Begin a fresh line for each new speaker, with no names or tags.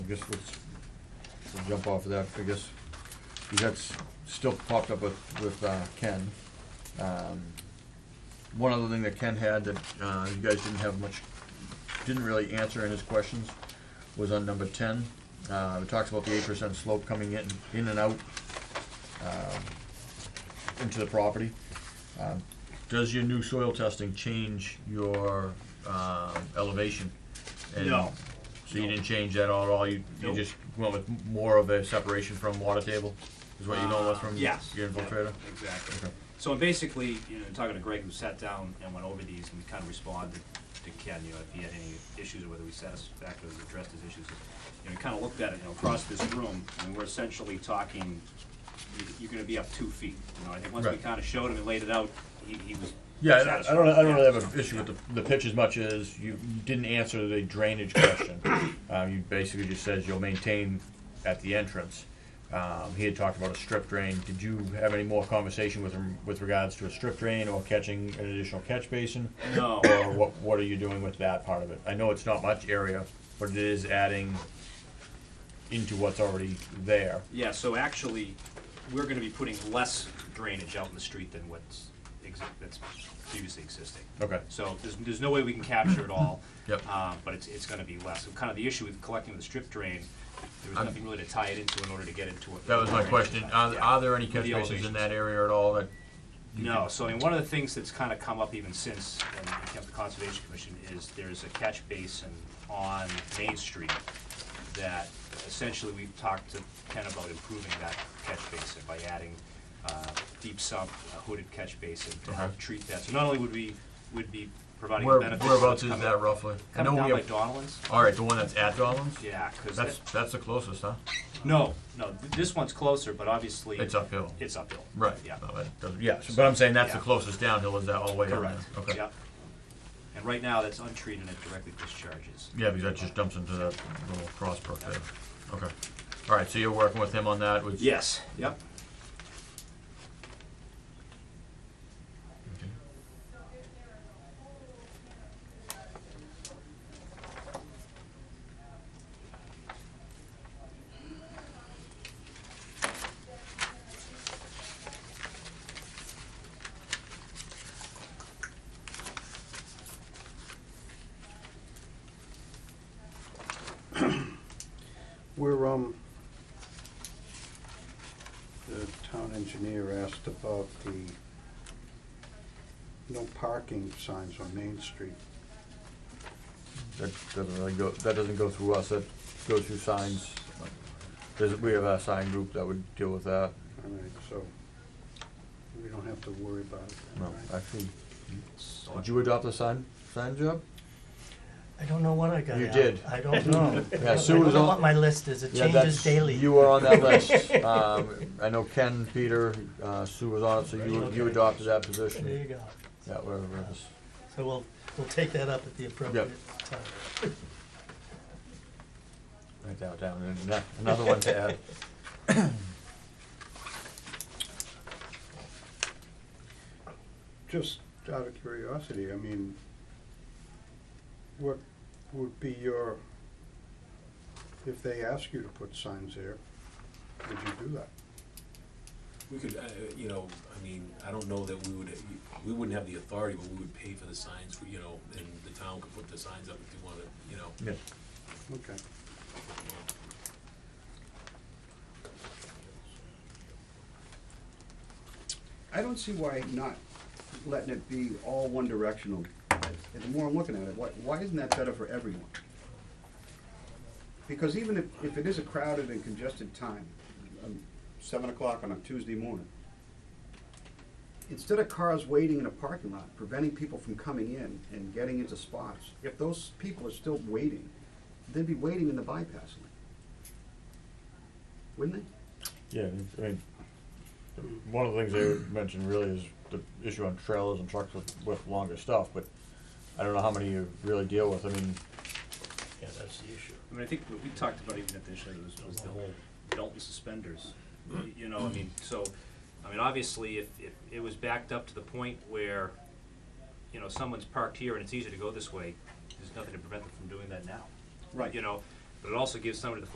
guess let's, we'll jump off of that, I guess, you got, s- still popped up with, with, uh, Ken. Um, One other thing that Ken had that, uh, you guys didn't have much, didn't really answer in his questions, was on number ten. Uh, it talks about the eight percent slope coming in, in and out, um, into the property. Um, Does your new soil testing change your, um, elevation? And-
No.
so you didn't change that at all, you, you
Nope.
just went with more of a separation from water table? Is what you know was from your
Yes.
your
Yep,
infiltrator?
Exactly.
Okay.
So basically, you know, talking to Greg, who sat down and went over these and kind of responded to Ken, you know, if he had any issues or whether we satisfactorily addressed his issues. You know, he kind of looked at it, you know, across this room, and we're essentially talking, you- you're gonna be up two feet. You know, I think once we
Right.
kind of showed him and laid it out, he, he was.
Yeah, I- I don't, I don't really have
satisfied.
an issue with the, the pitch as much as you didn't answer the drainage question. Um, you basically just said you'll maintain at the entrance. Um, he had talked about a strip drain. Did you have any more conversation with him with regards to a strip drain or catching an additional catch basin?
No.
Or what, what are you doing with that part of it? I know it's not much area, but it is adding into what's already there.
Yeah, so actually, we're gonna be putting less drainage out in the street than what's, ex- that's previously existing.
Okay.
So there's, there's no way we can capture it all.
Yep.
Uh, but it's, it's gonna be less. So kind of the issue with collecting the strip drain, there was
I'm-
nothing really to tie it into in order to get into it.
That was my question. Are,
Yeah.
are there any catch
The
basins in
elevations.
that area at all that? you
No,
could-
so I mean, one of the things that's kind of come up even since, and it came to the Conservation Commission, is there's a catch basin on Main Street that essentially we've talked to Ken about improving that catch basin by adding uh, deep sump, a hooded catch basin to help
Okay.
treat that. So not only would we, would be providing
Where,
benefits.
whereabouts
that's
is
coming-
that roughly? I know
Coming
we
down by
have,
Donovan's?
all right, the one that's at Dolan's?
Yeah, because
That's, that's the closest, huh?
no, no, th- this one's closer, but obviously.
It's uphill.
It's uphill.
Right.
Yeah.
No, that doesn't- Yeah, so- but I'm saying that's the
Yeah.
closest downhill, is that all the way down there?
Correct.
Okay.
Yep. And right now, that's untreated and it directly discharges.
Yeah, because that just dumps into that little crossbrook there. Okay. All right, so you're working with him on that, which?
Yes, yep.
Okay.
We're, um, the town engineer asked about the no parking signs on Main Street.
That doesn't really go, that doesn't go through us, that goes through signs. There's, we have a sign group that would deal with that.
All right, so we don't have to worry about it. then,
No,
right?
actually,
So-
did you adopt a sign, sign job?
I don't know when I got
You
out.
did.
I don't know.
Yeah,
I
Sue
don't
was
know
on-
what my list is. It
Yeah,
changes
that's-
daily.
You were on that list. Um, I know Ken, Peter, uh, Sue was on it, so you, you
Okay.
adopted that
There you
position.
go.
Yeah, whatever it is.
So we'll we'll take that up at the appropriate time.
Write that down, and ano- another one to add.
Just out of curiosity, I mean, what would be your, if they ask you to put signs there, would you do that?
We could, uh, you know, I mean, I don't know that we would, we wouldn't have the authority, but we would pay for the signs, you know, and the town could put the signs up if they wanted, you know.
Yeah.
Okay.
I don't see why not letting it be all one directional. And The more I'm looking at it, why, why isn't that better for everyone? Because even if, if it is a crowded and congested time, um, seven o'clock on a Tuesday morning, instead of cars waiting in a parking lot, preventing people from coming in and getting into spots, if those people are still waiting, they'd be waiting in the bypass lane. Wouldn't they?
Yeah, I mean, one of the things they mentioned really is the issue on trailers and trucks with, with longer stuff, but I don't know how many you really deal with. I mean,
Yeah, that's the issue.
I mean, I think what we talked about even at the issue was, was the whole belt and suspenders. Y- You know, I mean, so, I mean, obviously, if, if it was backed up to the point where, you know, someone's parked here and it's easier to go this way, there's nothing to prevent them from doing that now.
Right.
You know, but it also gives somebody the